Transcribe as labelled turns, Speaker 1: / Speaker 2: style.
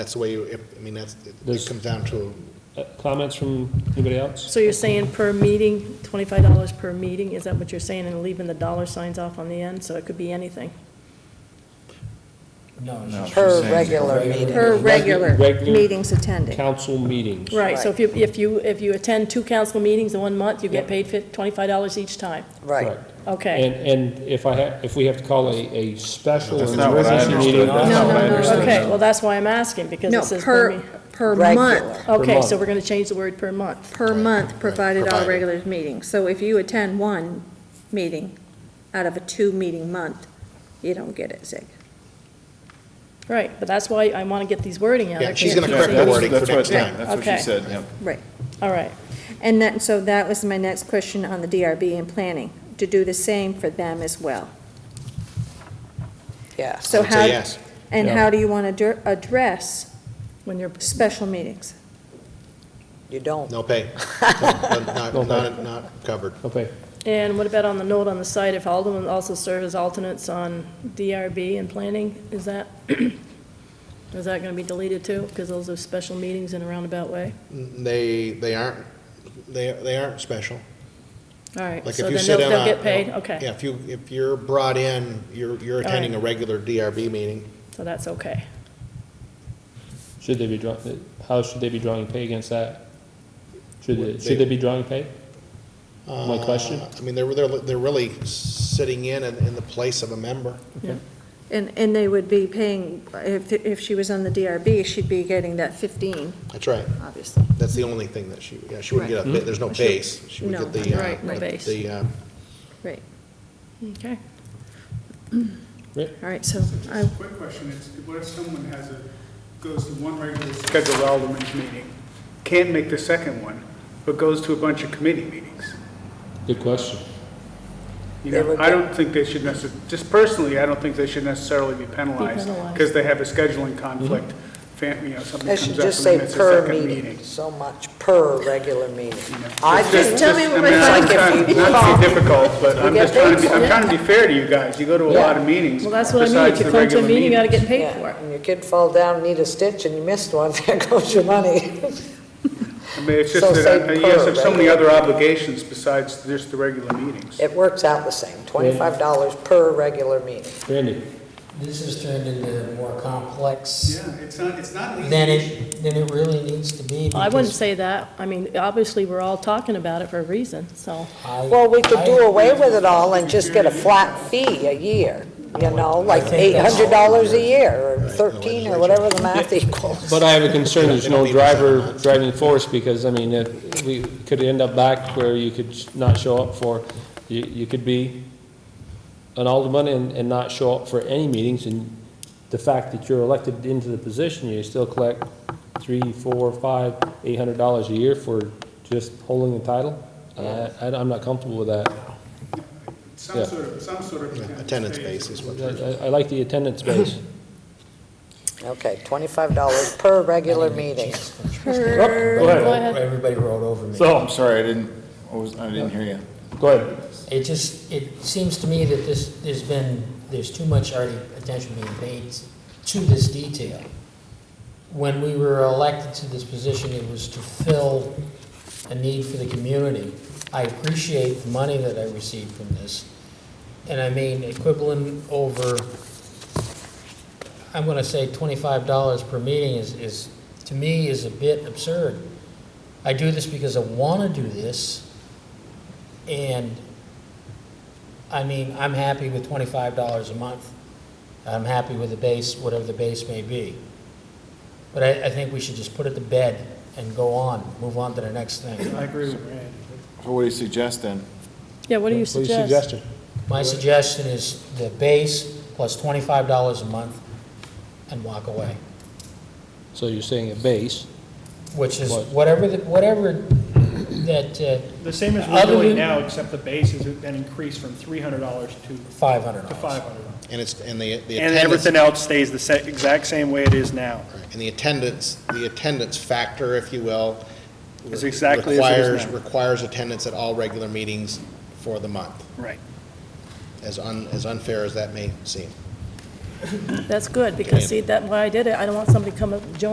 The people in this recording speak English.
Speaker 1: That's the way, you- if, I mean, that's, it- it
Speaker 2: Does-
Speaker 1: comes down to,
Speaker 2: Uh, Comments from anybody else?
Speaker 3: So you're saying per meeting, twenty-five dollars per meeting, is that what you're saying, and leaving the dollar signs off on the end, so it could be anything?
Speaker 4: No, she's
Speaker 5: Per
Speaker 4: saying it's
Speaker 5: regular
Speaker 4: regular.
Speaker 5: meeting.
Speaker 6: Per regular
Speaker 2: Regular-
Speaker 6: meetings attended.
Speaker 2: Council meetings.
Speaker 3: Right, so if you, if you, if you attend two council meetings in one month, you get paid fif- twenty-five dollars each time,
Speaker 5: Right.
Speaker 2: Correct. And,
Speaker 3: okay?
Speaker 2: and if I have, if we have to call a, a special
Speaker 4: That's not what I
Speaker 2: emergency meeting.
Speaker 4: understood. That's
Speaker 6: No,
Speaker 4: not what I
Speaker 6: no, no,
Speaker 4: understood.
Speaker 3: Okay, well, that's why I'm asking, because
Speaker 6: No,
Speaker 3: it says per,
Speaker 6: per,
Speaker 3: me-
Speaker 6: per
Speaker 5: Regular.
Speaker 6: month,
Speaker 3: okay, so
Speaker 2: month.
Speaker 3: we're gonna change the word per month.
Speaker 6: per month, provided all
Speaker 1: provided.
Speaker 6: regular meetings. So if you attend one meeting out of a two-meeting month, you don't get it, Zig.
Speaker 3: Right, but that's why I wanna get these wording out.
Speaker 1: yeah,
Speaker 3: I
Speaker 1: she's
Speaker 3: can't
Speaker 1: gonna
Speaker 3: keep
Speaker 1: correct the
Speaker 3: saying-
Speaker 1: wording for
Speaker 4: That's what,
Speaker 1: next
Speaker 4: yeah,
Speaker 1: time.
Speaker 4: that's what she
Speaker 3: Okay.
Speaker 4: said, yeah.
Speaker 6: Right.
Speaker 3: All right,
Speaker 6: And that, so that was my next question on the DRB and planning, to do the same for them as well.
Speaker 5: Yeah.
Speaker 1: I
Speaker 6: So
Speaker 1: would say
Speaker 6: how?
Speaker 1: yes.
Speaker 6: And
Speaker 2: Yeah.
Speaker 6: how do you want to address
Speaker 3: when you're,
Speaker 6: special meetings?
Speaker 5: You don't.
Speaker 1: No pay. No, Not,
Speaker 2: No pay.
Speaker 1: not, not covered.
Speaker 2: Okay,
Speaker 3: and what about on the note on the side, if Alderman also serve as alternates on DRB and planning, is that, is that gonna be deleted too? Because those are special meetings in a roundabout way?
Speaker 1: They, they aren't, they, they aren't special.
Speaker 3: All right,
Speaker 1: Like
Speaker 3: so
Speaker 1: if you
Speaker 3: then
Speaker 1: sit
Speaker 3: they'll,
Speaker 1: in
Speaker 3: they'll
Speaker 1: on.
Speaker 3: get paid, okay,
Speaker 1: Yeah, if you, if you're brought in, you're, you're
Speaker 3: right.
Speaker 1: attending a regular DRB meeting.
Speaker 3: so that's okay.
Speaker 2: should they be draw, uh, how should they be drawing pay against that? Should, they-
Speaker 1: Would
Speaker 2: should
Speaker 1: they-
Speaker 2: they be drawing pay? My question?
Speaker 1: Uh, I mean, they're, they're, they're really sitting in, in in the place of a member.
Speaker 6: And, and they would be paying, if, if she was on the DRB, she'd be getting that 15,
Speaker 1: That's right.
Speaker 6: obviously.
Speaker 1: That's the only thing that she, yeah, she wouldn't get a, there's no
Speaker 2: Mm-hmm.
Speaker 6: She-
Speaker 1: base. She would
Speaker 6: no,
Speaker 1: get the,
Speaker 3: right, no
Speaker 1: uh, the-
Speaker 3: base.
Speaker 1: the, uh,
Speaker 6: Right.
Speaker 3: Okay.
Speaker 6: All right, so I,
Speaker 7: Quick question, it's what if someone has a, goes to one regular scheduled Alderman's meeting, can't make the second one, but goes to a bunch of committee meetings?
Speaker 2: Good question.
Speaker 7: You
Speaker 5: They
Speaker 7: know,
Speaker 5: would
Speaker 7: I
Speaker 5: get-
Speaker 7: don't think they should necess, just personally, I don't think they should necessarily be penalized
Speaker 3: penalized.
Speaker 7: because they have a scheduling conflict, fam- you know, something
Speaker 5: I
Speaker 7: comes
Speaker 5: should
Speaker 7: up and
Speaker 5: just
Speaker 7: they
Speaker 5: say
Speaker 7: miss the
Speaker 5: per
Speaker 7: second
Speaker 5: meeting,
Speaker 7: meeting.
Speaker 5: so much per regular meeting. I
Speaker 7: Just-
Speaker 5: just,
Speaker 7: just-
Speaker 6: me
Speaker 7: I
Speaker 6: what
Speaker 7: mean,
Speaker 6: my
Speaker 7: I'm
Speaker 5: thought-
Speaker 7: trying- Not to be difficult, but I'm
Speaker 5: get
Speaker 7: just trying to be,
Speaker 5: paid
Speaker 7: I'm trying to be fair to you guys, you go to a lot of meetings
Speaker 3: Well, that's what I mean, if
Speaker 7: besides
Speaker 3: you
Speaker 7: the
Speaker 3: come to a
Speaker 7: regular
Speaker 3: meeting, you gotta get
Speaker 7: meetings.
Speaker 3: paid for
Speaker 5: yeah,
Speaker 3: it.
Speaker 5: and your kid fall down, and need a stitch, and you missed one, there goes your money.
Speaker 7: I mean, it's
Speaker 5: So
Speaker 7: just
Speaker 5: say
Speaker 7: that, I-
Speaker 5: per
Speaker 7: you guys have so many
Speaker 5: regular.
Speaker 7: other obligations besides just the regular meetings.
Speaker 5: It works out the same, twenty-five dollars per regular meeting.
Speaker 2: Randy,
Speaker 8: This has turned into more complex
Speaker 7: Yeah, it's not, it's not an easy
Speaker 8: than
Speaker 7: issue.
Speaker 8: it, than it really needs to be.
Speaker 3: I wouldn't
Speaker 8: because
Speaker 3: say that, I mean, obviously, we're all talking about it for a reason, so,
Speaker 8: I-
Speaker 5: Well, we could do
Speaker 8: I-
Speaker 5: away with it all and just get a flat fee a year, you know, like eight
Speaker 8: think that's-
Speaker 5: hundred dollars a year, or thirteen, or whatever the math equals.
Speaker 2: but I have a concern, there's
Speaker 1: They don't
Speaker 2: no
Speaker 1: need this
Speaker 2: driver
Speaker 1: amount.
Speaker 2: driving force, because, I mean, if, we could end up back where you could not show up for, you, you could be an alderman and, and not show up for any meetings, and the fact that you're elected into the position, you still collect three, four, five, eight hundred dollars a year for just holding the title? I, I- I'm not comfortable with that. Yeah.
Speaker 7: Some sort of, some sort of.
Speaker 1: attendance base is what. they're-
Speaker 2: I, I- I like the attendance base.
Speaker 5: Okay, twenty-five dollars per regular meeting.
Speaker 3: per,
Speaker 2: ahead.
Speaker 3: go ahead.
Speaker 8: Everybody rolled over me.
Speaker 2: So-
Speaker 4: I'm sorry, I didn't, I was- I didn't hear you.
Speaker 2: Go ahead.
Speaker 8: It just, it seems to me that this, there's been, there's too much already attention being paid to this detail. When we were elected to this position, it was to fill a need for the community. I appreciate the money that I received from this, and I mean, equivalent over, I'm gonna say twenty-five dollars per meeting is, is, to me, is a bit absurd. I do this because I wanna do this, and I mean, I'm happy with twenty-five dollars a month. I'm happy with the base, whatever the base may be. But I, I think we should just put it to bed and go on, move on to the next thing.
Speaker 7: I agree with Randy.
Speaker 4: So what do you suggest then?
Speaker 3: Yeah, what do
Speaker 2: What are
Speaker 3: you
Speaker 2: your
Speaker 3: suggest?
Speaker 2: suggestions?
Speaker 8: My suggestion is the base plus twenty-five dollars a month and walk away,
Speaker 2: So you're saying a base,
Speaker 8: which is
Speaker 2: What?
Speaker 8: whatever, the- whatever that, uh,
Speaker 9: The same as
Speaker 8: Other
Speaker 9: we're doing
Speaker 8: than-
Speaker 9: now, except the base has been increased from three hundred dollars to,
Speaker 8: five hundred
Speaker 9: to
Speaker 8: dollars.
Speaker 9: five hundred dollars.
Speaker 1: And it's, and the, the
Speaker 9: And
Speaker 1: attendance,
Speaker 9: everything else stays the sa- exact same way it is now.
Speaker 1: and the attendance, the attendance factor, if you will.
Speaker 9: Is exactly as it is
Speaker 1: requires-
Speaker 9: now.
Speaker 1: Requires attendance at all regular meetings for the month,
Speaker 9: Right.
Speaker 1: as un, as unfair as that may seem.
Speaker 3: That's good, because see, that, why I did it, I don't want somebody to come up, join